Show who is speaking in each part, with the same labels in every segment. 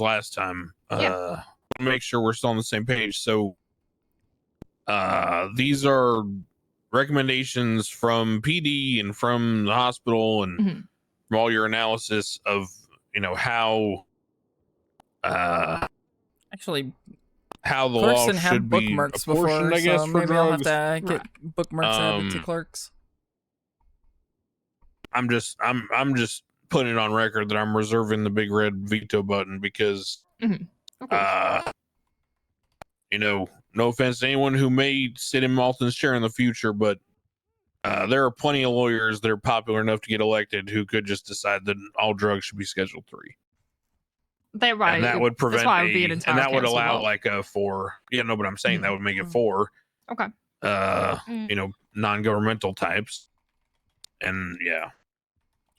Speaker 1: last time.
Speaker 2: Yeah.
Speaker 1: Uh, make sure we're still on the same page. So, uh, these are recommendations from PD and from the hospital and
Speaker 3: Mm-hmm.
Speaker 2: Mhm.
Speaker 1: from all your analysis of you know how uh
Speaker 3: Actually,
Speaker 1: how the
Speaker 3: clerks
Speaker 1: law
Speaker 3: didn't have
Speaker 1: should be
Speaker 3: bookmarks before,
Speaker 1: apportioned, I guess,
Speaker 3: so
Speaker 1: for
Speaker 3: maybe I'll have
Speaker 1: drugs.
Speaker 3: to uh, get bookmarks added to
Speaker 1: Um,
Speaker 3: clerks.
Speaker 1: I'm just I'm I'm just putting it on record that I'm reserving the big red veto button because
Speaker 2: Of course.
Speaker 1: uh you know, no offense to anyone who may sit in Malton's chair in the future, but uh, there are plenty of lawyers that are popular enough to get elected who could just decide that all drugs should be Schedule Three,
Speaker 2: They're right.
Speaker 1: and that
Speaker 2: It-
Speaker 1: would prevent
Speaker 2: why it would be
Speaker 1: a-
Speaker 2: an
Speaker 1: and
Speaker 2: entire
Speaker 1: that would
Speaker 2: council
Speaker 1: allow
Speaker 2: vote.
Speaker 1: like a four. Yeah, no, but I'm saying that would make it
Speaker 3: Mhm.
Speaker 1: four.
Speaker 2: Okay.
Speaker 1: Uh,
Speaker 2: Mm.
Speaker 1: you know, non-governmental types, and yeah,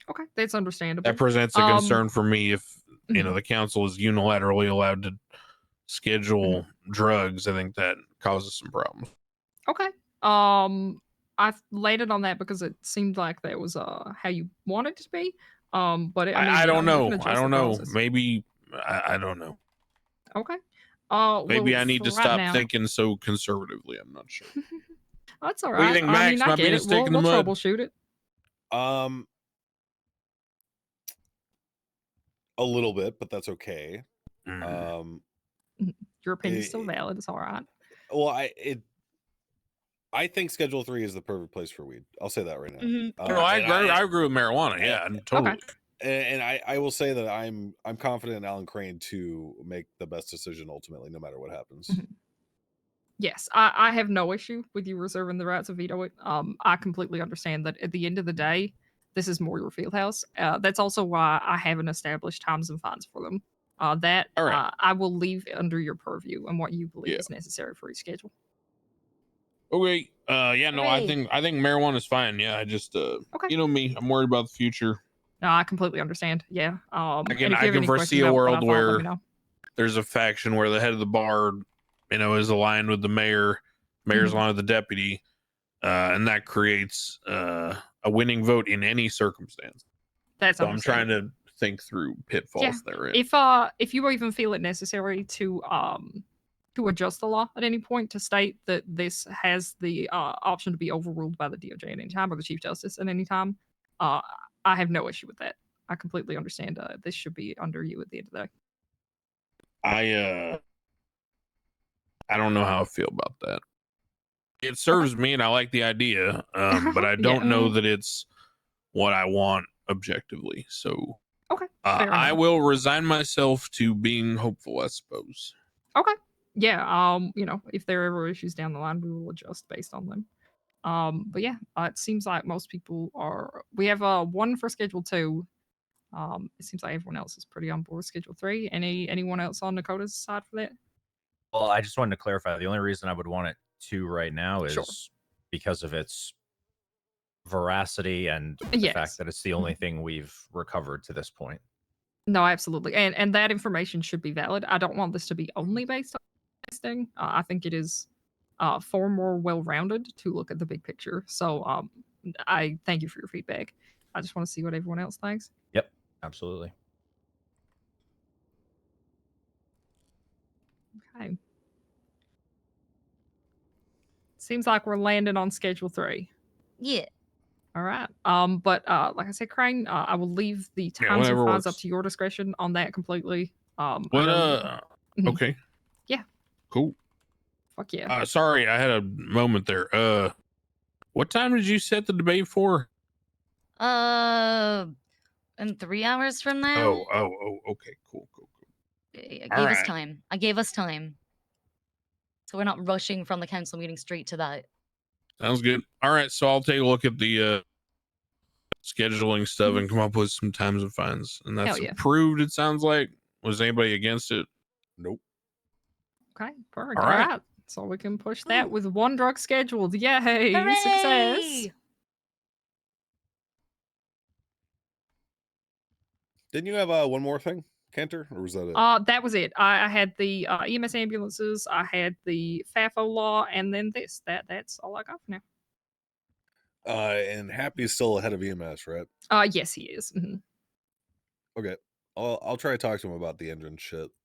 Speaker 2: okay, that's understandable. Mm-hmm.
Speaker 1: that presents a
Speaker 2: Um,
Speaker 1: concern for me if you know the council is unilaterally allowed to schedule drugs i think that causes some problems
Speaker 2: Okay. Um, I landed on that because it seemed like that was uh how you want it to be. Um, but it,
Speaker 1: i,
Speaker 2: I, mean,
Speaker 1: I
Speaker 2: you
Speaker 1: don't
Speaker 2: you
Speaker 1: know
Speaker 2: can
Speaker 1: i
Speaker 2: adjust the
Speaker 1: don't know
Speaker 2: process.
Speaker 1: maybe I, I don't know
Speaker 2: Okay. Uh,
Speaker 1: maybe
Speaker 2: well,
Speaker 1: i need
Speaker 2: for
Speaker 1: to
Speaker 2: right
Speaker 1: stop
Speaker 2: now-
Speaker 1: thinking so conservatively i'm not sure
Speaker 2: That's all
Speaker 1: What do
Speaker 2: right.
Speaker 1: you think,
Speaker 2: I mean,
Speaker 1: Max?
Speaker 2: I
Speaker 1: My
Speaker 2: get it.
Speaker 1: penis
Speaker 2: We'll,
Speaker 1: stick in the
Speaker 2: we'll
Speaker 1: mud?
Speaker 2: troubleshoot it.
Speaker 4: Um, a little bit, but that's okay.
Speaker 1: Mm.
Speaker 4: Um,
Speaker 2: Your opinion's still
Speaker 4: Eh,
Speaker 2: valid. It's all right.
Speaker 4: well, I it, I think Schedule Three is the perfect place for weed. I'll say that right now. Uh,
Speaker 1: Mm-hmm. no, I,
Speaker 4: and
Speaker 1: agree, I agree with marijuana. Yeah, and totally.
Speaker 4: and, and I, I will say that I'm I'm confident in Alan Crane to make the best decision ultimately, no matter what happens.
Speaker 1: Mm-hmm.
Speaker 2: Mhm. Yes, I, I have no issue with you reserving the right to veto it. Um, I completely understand that at the end of the day, this is more your field house. Uh, that's also why I haven't established times and fines for them. Uh, that
Speaker 1: All right.
Speaker 2: uh, I will leave under your purview and what you believe
Speaker 1: Yeah.
Speaker 2: is necessary for your schedule.
Speaker 1: Okay. Uh, yeah, no, I
Speaker 5: Hooray.
Speaker 1: think I think marijuana is fine. Yeah, I just uh,
Speaker 2: Okay.
Speaker 1: you know me, I'm worried about the future.
Speaker 2: No, I completely understand. Yeah. Um, and
Speaker 1: I can-
Speaker 2: if you
Speaker 1: I
Speaker 2: have
Speaker 1: can
Speaker 2: any questions
Speaker 1: foresee a
Speaker 2: about what I
Speaker 1: world
Speaker 2: thought, let
Speaker 1: where-
Speaker 2: me know.
Speaker 1: There's a faction where the head of the bar, you know, is aligned with the mayor. Mayor's
Speaker 2: Mhm.
Speaker 1: aligned with the deputy, uh, and that creates uh, a winning vote in any circumstance.
Speaker 2: that's
Speaker 1: So I'm
Speaker 2: understandable.
Speaker 1: trying to think through pitfalls
Speaker 2: Yeah,
Speaker 1: there. is.
Speaker 2: if uh if you even feel it necessary to um to adjust the law at any point to state that this has the uh, option to be overruled by the DOJ at any time or the Chief Justice at any time, uh, I have no issue with that. I completely understand. Uh, this should be under you at the end of the day.
Speaker 1: I uh I don't know how I feel about that. It serves me and I like the idea, um, but I don't
Speaker 2: Yeah.
Speaker 1: know that it's what I want objectively. So
Speaker 2: Okay,
Speaker 1: uh,
Speaker 2: fair
Speaker 1: I
Speaker 2: enough.
Speaker 1: will resign myself to being hopeful, I suppose.
Speaker 2: Yeah. Um. You know, if there are ever issues down the line, we will adjust based on them. Um. But yeah, uh, it seems like most people are. We have uh one for Schedule Two. Um. It seems like everyone else is pretty on board with Schedule Three. Any anyone else on Dakota's side for that?
Speaker 6: Well, I just wanted to clarify. The only reason I would want it to right now is
Speaker 2: Sure.
Speaker 6: because of its veracity and the
Speaker 2: Yes. Mm-hmm.
Speaker 6: fact that it's the only thing we've recovered to this point.
Speaker 2: No, absolutely, and and that information should be valid. I don't want this to be only based on testing. Uh, I think it is uh, far more well-rounded to look at the big picture. So, um, I thank you for your feedback. I just want to see what everyone else thinks.
Speaker 6: Absolutely.
Speaker 2: Okay. Seems like we're landing on schedule three.
Speaker 5: Yeah.
Speaker 2: All right. Um, but uh, like I said, Crane, uh, I will leave the
Speaker 1: Yeah,
Speaker 2: times and
Speaker 1: whatever
Speaker 2: fines up
Speaker 1: works.
Speaker 2: to your discretion on that completely. Um, I
Speaker 1: Well,
Speaker 2: know-
Speaker 1: uh
Speaker 2: Mhm.
Speaker 1: okay.
Speaker 2: Yeah.
Speaker 1: Cool.
Speaker 2: fuck yeah.
Speaker 1: Uh sorry, I had a moment there. Uh what time did you set the debate for?
Speaker 5: Uh, and three hours from
Speaker 2: Um,
Speaker 5: now.
Speaker 1: Oh, oh, oh, okay, cool, cool, cool.
Speaker 5: I I gave
Speaker 1: all
Speaker 5: us
Speaker 1: right.
Speaker 5: time. I gave us time. So we're not rushing from the council meeting straight to that.
Speaker 1: Sounds good. All right, so I'll take a look at the uh scheduling stuff and come up with some times and fines. And that's
Speaker 2: Mm-hmm. Hell yeah.
Speaker 1: approved, it sounds like. Was anybody against it? Nope.
Speaker 2: Okay, perfect.
Speaker 1: All
Speaker 2: All
Speaker 1: right.
Speaker 2: right. Hmm. So we can push that with one drug scheduled. Yay! Success.
Speaker 5: Hooray!
Speaker 4: Didn't you have uh, one more thing, Cantor, or was that it?
Speaker 2: Uh, that was it. I, I had the uh, EMS ambulances, I had the FAFO law, and then this. That that's all I got for now.
Speaker 4: uh, E and Happy is still ahead of EMS, right?
Speaker 2: Mm-hmm. Uh, yes, he is. Mhm.
Speaker 4: Okay. I'll I'll try to talk to him about the engine shit.